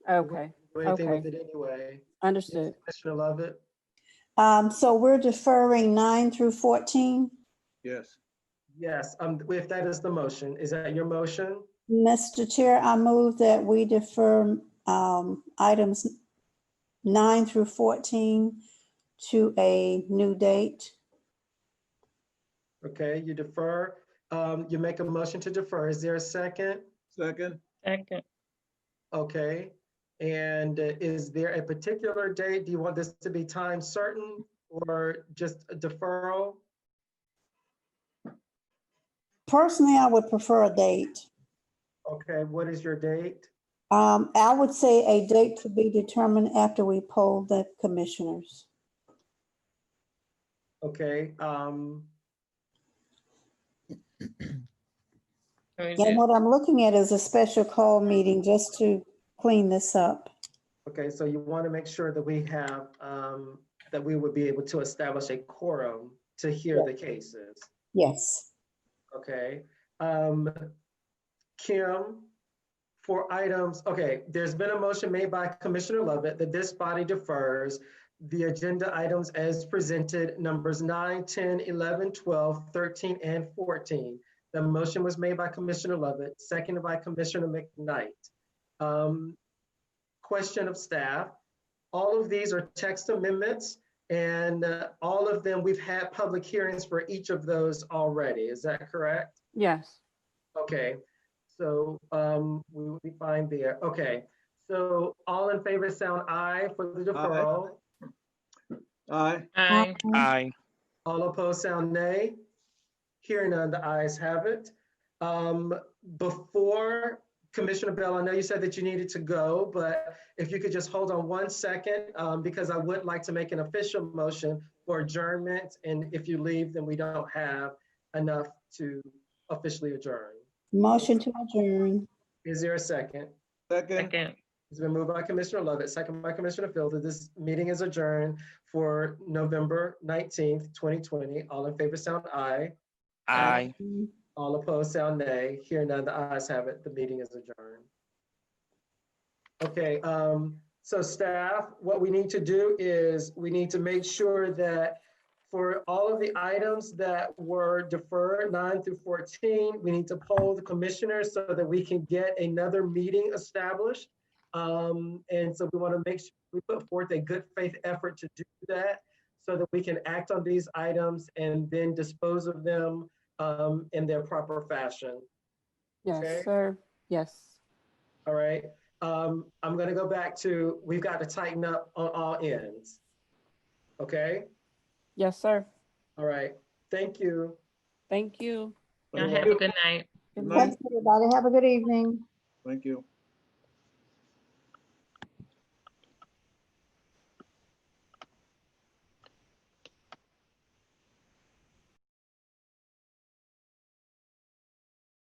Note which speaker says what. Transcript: Speaker 1: Okay,
Speaker 2: do anything with
Speaker 1: Okay.
Speaker 2: it anyway.
Speaker 1: understood.
Speaker 2: Commissioner Lovett,
Speaker 3: Um, so we're deferring nine through fourteen.
Speaker 4: Yes.
Speaker 2: yes, um, if that is the motion, is that your motion?
Speaker 3: Mr. Chair, I move that we defer, um, items nine through fourteen to a new date.
Speaker 2: Okay, you defer, um, you make a motion to defer. Is there a second?
Speaker 4: Second?
Speaker 5: Second,
Speaker 2: Okay, and uh, is there a particular date? Do you want this to be time certain or just a deferral?
Speaker 3: Personally, I would prefer a date.
Speaker 2: Okay, what is your date?
Speaker 3: Um, I would say a date to be determined after we poll the commissioners.
Speaker 2: Okay, um,
Speaker 5: or is
Speaker 3: And
Speaker 5: it
Speaker 3: what I'm looking at is a special call meeting just to clean this up.
Speaker 2: okay, so you want to make sure that we have, um, that we would be able to establish a quorum to hear the cases,
Speaker 3: Yes.
Speaker 2: okay? Um, Kim, for items, okay, there's been a motion made by Commissioner Lovett that this body defers the agenda items as presented, numbers 9, 10, 11, 12, 13, and 14. The motion was made by Commissioner Lovett, seconded by Commissioner McKnight. Um, Question of staff, all of these are text amendments, and uh, all of them, we've had public hearings for each of those already. Is that correct?
Speaker 1: Yes,
Speaker 2: Okay, so um, we will be fine there. Okay, so all in favor, sound aye for the deferral.
Speaker 4: Aye.
Speaker 5: aye?
Speaker 6: Aye.
Speaker 2: All opposed, sound nay. Hearing none, the ayes have it. Um, Before, Commissioner Bell, I know you said that you needed to go, but if you could just hold on one second, um, because I would like to make an official motion for adjournment, and if you leave, then we don't have enough to officially adjourn.
Speaker 3: Motion to adjourn.
Speaker 2: Is there a second?
Speaker 4: Second?
Speaker 5: Second,
Speaker 2: It's been moved by Commissioner Lovett, second by Commissioner Fielder. This meeting is adjourned for November nineteenth, twenty twenty. All in favor, sound aye.
Speaker 6: Aye.
Speaker 2: All opposed, sound nay. Here none, the ayes have it. The meeting is adjourned. Okay, um, so staff, what we need to do is we need to make sure that for all of the items that were deferred, nine through fourteen, we need to poll the commissioners so that we can get another meeting established. Um, and so we want to make sure we put forth a good faith effort to do that so that we can act on these items and then dispose of them um, in their proper fashion. Okay.
Speaker 1: yes, sir, yes.
Speaker 2: All right. Um, I'm gonna go back to, we've got to tighten up on all ends. Okay,
Speaker 1: Yes, sir.
Speaker 2: all right. Thank you.
Speaker 1: Thank you.
Speaker 5: y'all have a good night.
Speaker 4: Good night.
Speaker 3: Thanks, everybody. Have a good evening.
Speaker 4: Thank you.